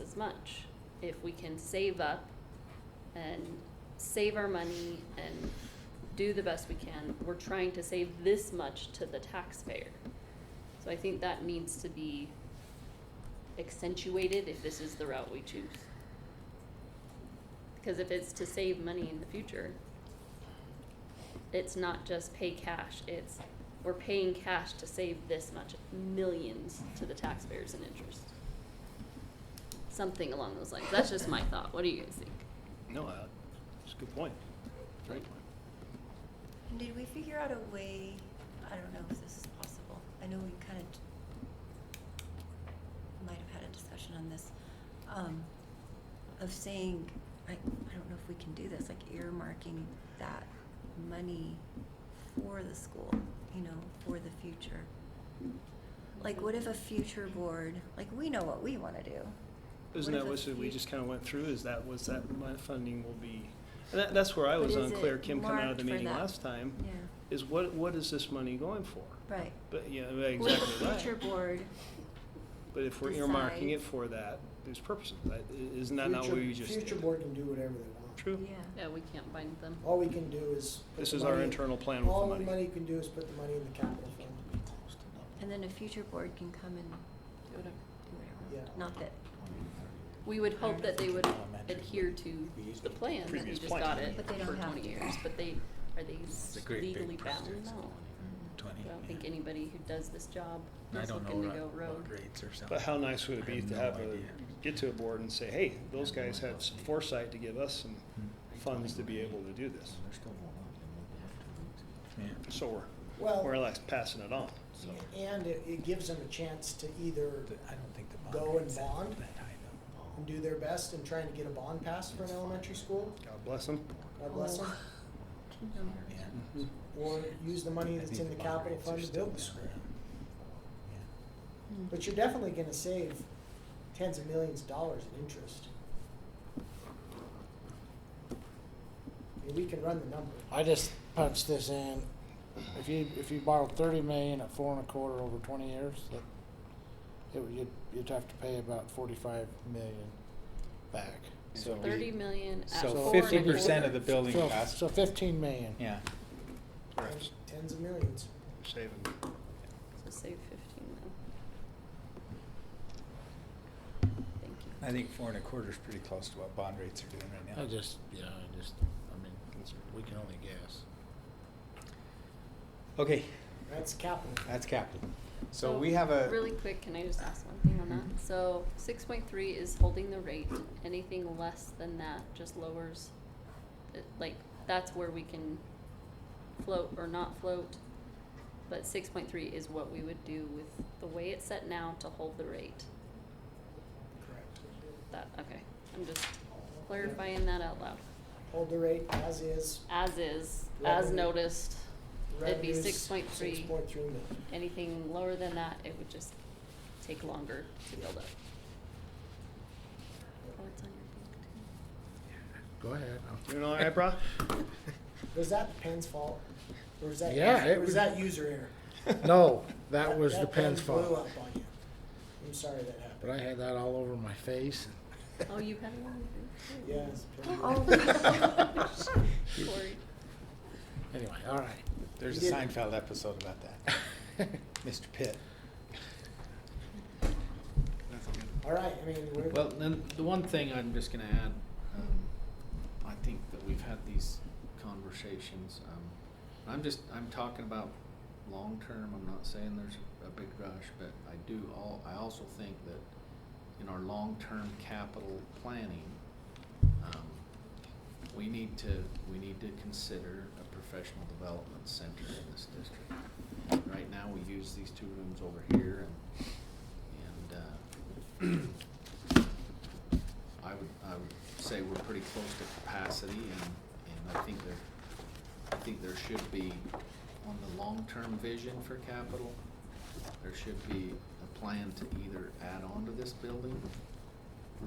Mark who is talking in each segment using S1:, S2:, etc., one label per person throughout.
S1: as much. If we can save up and save our money and do the best we can, we're trying to save this much to the taxpayer. So I think that needs to be accentuated if this is the route we choose. Because if it's to save money in the future, it's not just pay cash, it's we're paying cash to save this much, millions to the taxpayers in interest. Something along those lines. That's just my thought. What do you guys think?
S2: No, uh, it's a good point. Great point.
S3: And did we figure out a way, I don't know if this is possible, I know we kind of might have had a discussion on this, um, of saying, I, I don't know if we can do this, like earmarking that money for the school, you know, for the future. Like, what if a future board, like, we know what we wanna do.
S2: Isn't
S3: What if
S2: that
S3: a
S2: what we
S3: fut-
S2: just kind of went through, is that was that my funding will be, and that, that's where I
S3: But
S2: was
S3: is
S2: unclear,
S3: it
S2: Kim coming out of the
S3: marked for
S2: meeting
S3: that?
S2: last time,
S3: Yeah,
S2: is what, what is this money going for?
S3: right.
S2: But, yeah,
S3: What if
S2: exactly
S3: a future
S2: right.
S3: board
S2: But if we're earmarking it
S3: decides-
S2: for that, there's purposes, That- i- isn't that not what
S4: Future-
S2: we just
S4: Future
S2: did?
S4: board can do whatever they want.
S3: Yeah.
S2: True.
S1: Yeah, we can't bind them.
S5: Oh.
S4: All we can do is. put
S2: This
S4: the
S2: is our
S4: money-
S2: internal plan with
S4: All
S2: the
S4: the
S2: money.
S4: money can do is put the money in the capital fund.
S3: And then a future board can come and do whatever.
S4: Yeah.
S3: Not that,
S1: We would hope that they would
S5: Elementary,
S1: adhere
S5: but
S1: to
S5: we used
S1: the
S5: the
S1: plan that we
S2: previous
S1: just
S2: plan.
S1: got it
S3: But they don't
S1: for
S3: have
S1: twenty
S3: to.
S1: years, but they, are they
S5: It's a great
S1: legally
S5: big
S1: bound?
S5: project.
S1: No.
S3: 嗯
S5: Twenty.
S1: I don't
S5: yeah.
S1: think anybody who does this job
S5: And I
S1: is
S5: don't
S1: looking
S5: know
S1: to go
S5: what-
S1: rogue.
S5: what grades or something.
S2: But how nice would it
S5: I
S2: be to
S5: no
S2: have a,
S5: idea.
S2: get to a board and say, hey, those
S5: I have no
S2: guys
S5: idea.
S2: had some foresight to give us some
S5: Hmm.
S2: funds to be able to do this.
S5: Yeah.
S2: So we're, we're
S4: Well,
S2: like passing it on, so.
S4: and it, it gives them a chance to either
S5: The- I don't think the bond.
S4: Go and
S5: rate's that-
S4: bond?
S5: that high, though.
S4: do their best in trying to get a bond passed for an elementary school,
S2: God bless them.
S5: Oh.
S4: God bless
S1: Oh.
S4: them,
S5: Yeah.
S4: or use the Mm-hmm. money
S5: I
S4: that's
S5: think
S4: in the
S5: bond
S4: capital
S5: rates are
S4: fund to
S5: still
S4: build the
S5: down
S4: school.
S5: around. Yeah.
S3: 嗯
S4: But you're definitely gonna save tens of millions of dollars in interest. I mean, we can run the number.
S6: I just punched this in. If you if you borrowed thirty million at four and a quarter over twenty years, that it would you'd, you'd have to pay about forty five million back. So
S1: Thirty million at
S6: So
S1: four and a
S6: 50%
S5: of the
S1: quarter.
S5: bill- building
S6: so,
S5: cost.
S6: so fifteen million.
S5: Yeah.
S2: Perhaps
S4: Tens of millions.
S2: saving.
S1: So save fifteen then. Thank you.
S5: I think four and a quarter is pretty close to what bond rates are doing right now.
S7: I just, yeah, I just, I mean, we can only guess.
S5: Okay,
S4: That's capital.
S5: that's capital. So we have a.
S1: Really quick, can I just ask one thing on
S5: Mhm.
S1: that? So six point three is holding the rate, anything less than that just lowers, it- like, that's where we can float or not float. But six point three is what we would do with the way it's set now to hold the rate,
S4: Correct.
S1: that, okay, I'm just clarifying that out loud.
S4: Hold the rate as is.
S1: As is, as
S4: Revenue.
S1: noticed, it'd be
S4: Revenues,
S1: six point three,
S4: 6.3 million.
S1: anything lower than that, it would just take longer to build up. Oh, it's on your book too.
S7: Go ahead. I'll-
S2: You know, right, bro?
S4: Was that the pen's fault? Or was that,
S7: Yeah,
S4: or
S7: it
S4: was,
S7: was-
S4: that user error?
S7: No, that was the
S4: pen
S7: pen's
S4: Blew
S7: fault.
S4: up on you. I'm sorry that happened.
S7: But I had that all over my face.
S1: Oh, you have it on your
S4: Yeah,
S1: book
S4: it's a pen.
S3: Oh.
S1: too. Sorry.
S7: Anyway, all right.
S5: There's
S4: You
S5: a
S4: didn't-
S5: Seinfeld episode about that. Mr. Pitt.
S4: All right. I mean, we're,
S8: Well, then the one thing I'm just going to add, um, I think that we've had these conversations. Um, I'm just I'm talking about long term. I'm not saying there's a big rush, but I do all. I also think that in our long term capital planning, um, we need to we need to consider a professional development center in this district. Right now, we use these two rooms over here and and uh, I would, I would say we're pretty close to capacity and, and I think there, I think there should be, on the long-term vision for capital, there should be a plan to either add on to this building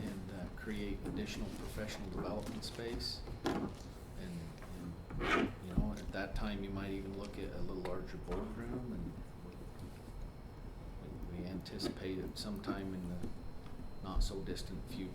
S8: and uh, create additional professional development space. And, and, you know, at that time, you might even look at a little larger boardroom and we- we anticipate it sometime in the not-so-distant future